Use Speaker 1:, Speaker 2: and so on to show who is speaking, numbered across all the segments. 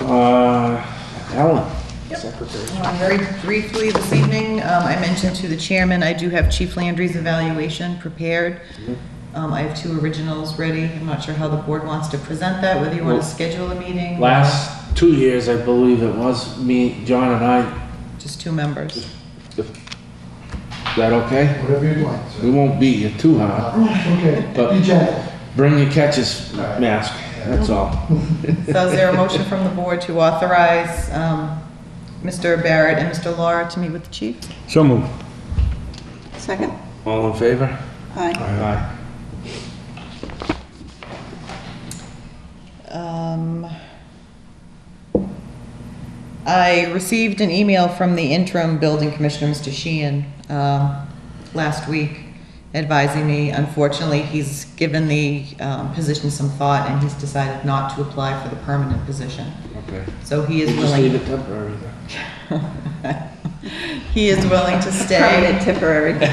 Speaker 1: Uh, Ellen, secretary.
Speaker 2: Um, Very briefly this evening, um, I mentioned to the chairman, I do have Chief Landry's evaluation prepared. Um, I have two originals ready. I'm not sure how the board wants to present that, whether you want to
Speaker 1: Well,
Speaker 2: schedule a meeting. or
Speaker 1: Last two years, I believe it was me, John and I.
Speaker 2: Just two members.
Speaker 1: Is that okay?
Speaker 3: Whatever you'd like, sir.
Speaker 1: We won't beat you too hard.
Speaker 3: Okay,
Speaker 1: But-
Speaker 3: be gentle.
Speaker 1: Bring your catcher's mask, that's all.
Speaker 2: So is there a motion from the board to authorize, um, Mr. Barrett and Mr. Laura to meet with the chief?
Speaker 4: So moved.
Speaker 5: Second?
Speaker 1: All in favor?
Speaker 5: Aye.
Speaker 1: Aye.
Speaker 2: Um, I received an email from the interim building commissioner, Mr. Sheehan, um, last week advising me, unfortunately, he's given the um, position some thought and he's decided not to apply for the permanent position.
Speaker 1: Okay.
Speaker 2: So he is
Speaker 1: We'll Just leave
Speaker 2: willing,
Speaker 1: it temporary then.
Speaker 2: he is willing to stay.
Speaker 5: Permanent temporary.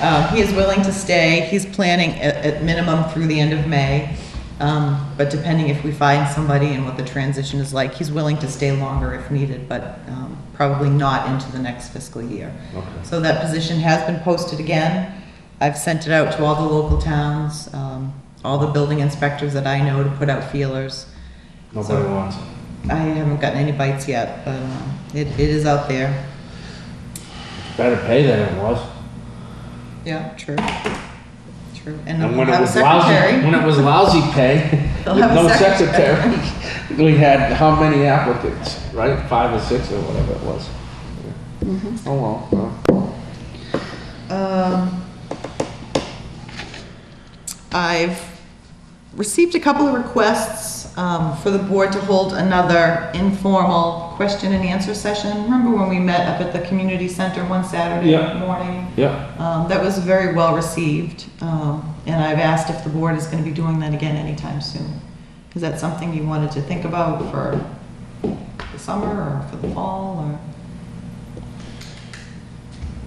Speaker 2: Um, He is willing to stay. He's planning at, at minimum through the end of May. Um, But depending if we find somebody and what the transition is like, he's willing to stay longer if needed, but um, probably not into the next fiscal year.
Speaker 1: Okay.
Speaker 2: So that position has been posted again. I've sent it out to all the local towns, um, all the building inspectors that I know to put out feelers.
Speaker 1: Nobody
Speaker 2: So-
Speaker 1: wants it.
Speaker 2: I haven't gotten any bites yet, but um, it, it is out there.
Speaker 1: Better pay than it was.
Speaker 2: Yeah, true. True. And
Speaker 1: And
Speaker 2: we'll
Speaker 1: when it
Speaker 2: have a
Speaker 1: was lousy,
Speaker 2: secretary.
Speaker 1: when it was lousy pay,
Speaker 2: They'll
Speaker 1: with
Speaker 2: have a
Speaker 1: no
Speaker 2: secretary.
Speaker 1: secretary, we had how many applicants, right? Five or six or whatever it was.
Speaker 2: Mm-hmm.
Speaker 1: Oh, well, well.
Speaker 2: Um, I've received a couple of requests um, for the board to hold another informal question and answer session. Remember when we met up at the community center one Saturday
Speaker 1: Yeah.
Speaker 2: morning?
Speaker 1: yeah,
Speaker 2: Um, That was very well received, um, and I've asked if the board is going to be doing that again anytime soon. Is that something you wanted to think about for the summer or for the fall or?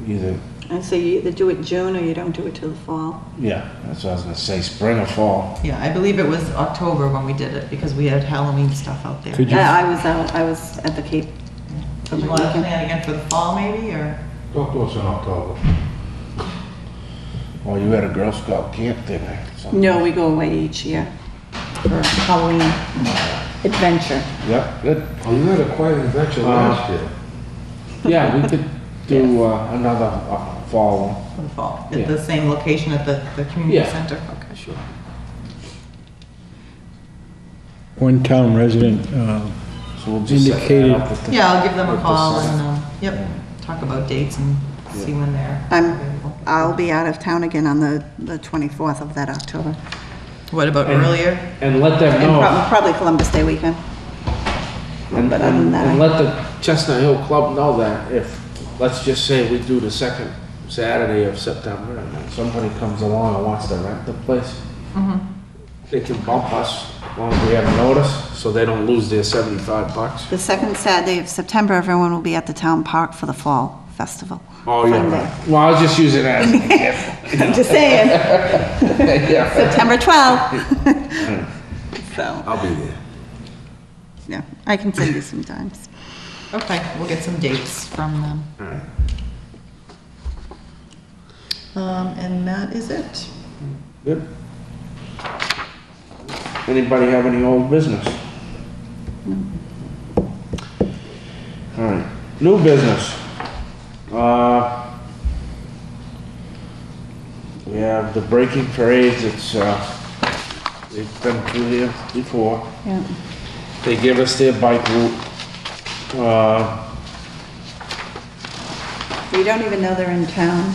Speaker 1: either,
Speaker 5: And so you either do it June or you don't do it till the fall.
Speaker 1: yeah, that's what I was gonna say, spring or fall.
Speaker 2: Yeah, I believe it was October when we did it because we had Halloween stuff out there.
Speaker 4: Could you-
Speaker 5: Uh, I I was out, I was at the Cape.
Speaker 2: Do you want to plan again for the fall maybe or?
Speaker 1: Don't do us in October. Well, Oh, you had a Girl Scout camp thing or something.
Speaker 5: No, we go away each year for Halloween adventure.
Speaker 1: Yeah, good.
Speaker 3: Oh, you had a quiet adventure
Speaker 1: last
Speaker 3: year.
Speaker 1: Yeah, we could do uh, another uh, fall one.
Speaker 2: For the fall,
Speaker 1: Yeah.
Speaker 2: at the same location at the, the community
Speaker 1: Yeah.
Speaker 2: center? Okay, sure.
Speaker 4: One town resident, uh,
Speaker 1: So we'll just set that
Speaker 4: Indicated.
Speaker 1: up with the-
Speaker 2: Yeah, I'll give them a call
Speaker 1: site.
Speaker 2: and, um, yep, talk about dates and see when they're
Speaker 5: I'm,
Speaker 2: available.
Speaker 5: I'll be out of town again on the, the 24th of that October.
Speaker 2: What about
Speaker 1: And-
Speaker 2: earlier?
Speaker 1: And let them
Speaker 5: And prob-
Speaker 1: know.
Speaker 5: probably Columbus Day weekend.
Speaker 1: And,
Speaker 5: but other than
Speaker 1: and
Speaker 5: that,
Speaker 1: and
Speaker 5: I-
Speaker 1: let the Chestnut Hill Club know that if, let's just say we do the second Saturday of September and then somebody comes along and wants to rent the place, they can bump us as long as we have notice, so they don't lose their seventy-five bucks.
Speaker 5: The second Saturday of September, everyone will be at the town park for the fall festival.
Speaker 1: Oh, yeah,
Speaker 5: Fun day.
Speaker 1: right. Well, I was just using that as an example.
Speaker 5: I'm just saying,
Speaker 1: Yeah.
Speaker 5: September 12th. So,
Speaker 1: I'll be there.
Speaker 5: yeah, I can send you some times.
Speaker 2: Okay, we'll get some dates from them.
Speaker 1: All right.
Speaker 2: Um, and that is it.
Speaker 1: Good. Anybody have any old business? All right, new business. Uh, We have the breaking parades, it's, uh, they've been through here before.
Speaker 5: Yeah.
Speaker 1: They give us their bike route. Uh,
Speaker 5: You don't even know they're in town.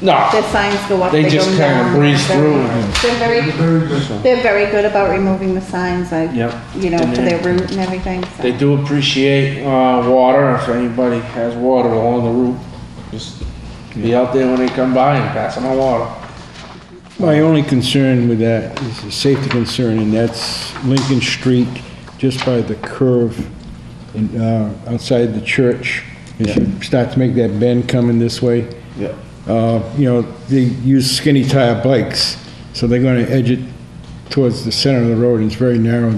Speaker 5: Their
Speaker 1: No,
Speaker 5: signs go up,
Speaker 1: They
Speaker 5: they go
Speaker 1: just kinda
Speaker 5: down.
Speaker 1: breeze
Speaker 5: They're-
Speaker 1: through.
Speaker 5: They're very, they're very good about removing the signs, like,
Speaker 1: Yep.
Speaker 5: you know,
Speaker 1: And
Speaker 5: for
Speaker 1: they-
Speaker 5: their route and everything, so.
Speaker 1: They do appreciate uh, water, if anybody has water along the route, just be out there when they come by and pass them on water.
Speaker 4: my only concern with that is a safety concern, and that's Lincoln Street, just by the curve in, uh, outside the church. As you start to make that bend coming this way,
Speaker 1: Yeah.
Speaker 4: uh, you know, they use skinny tire bikes, so they're gonna edge it towards the center of the road, and it's very narrow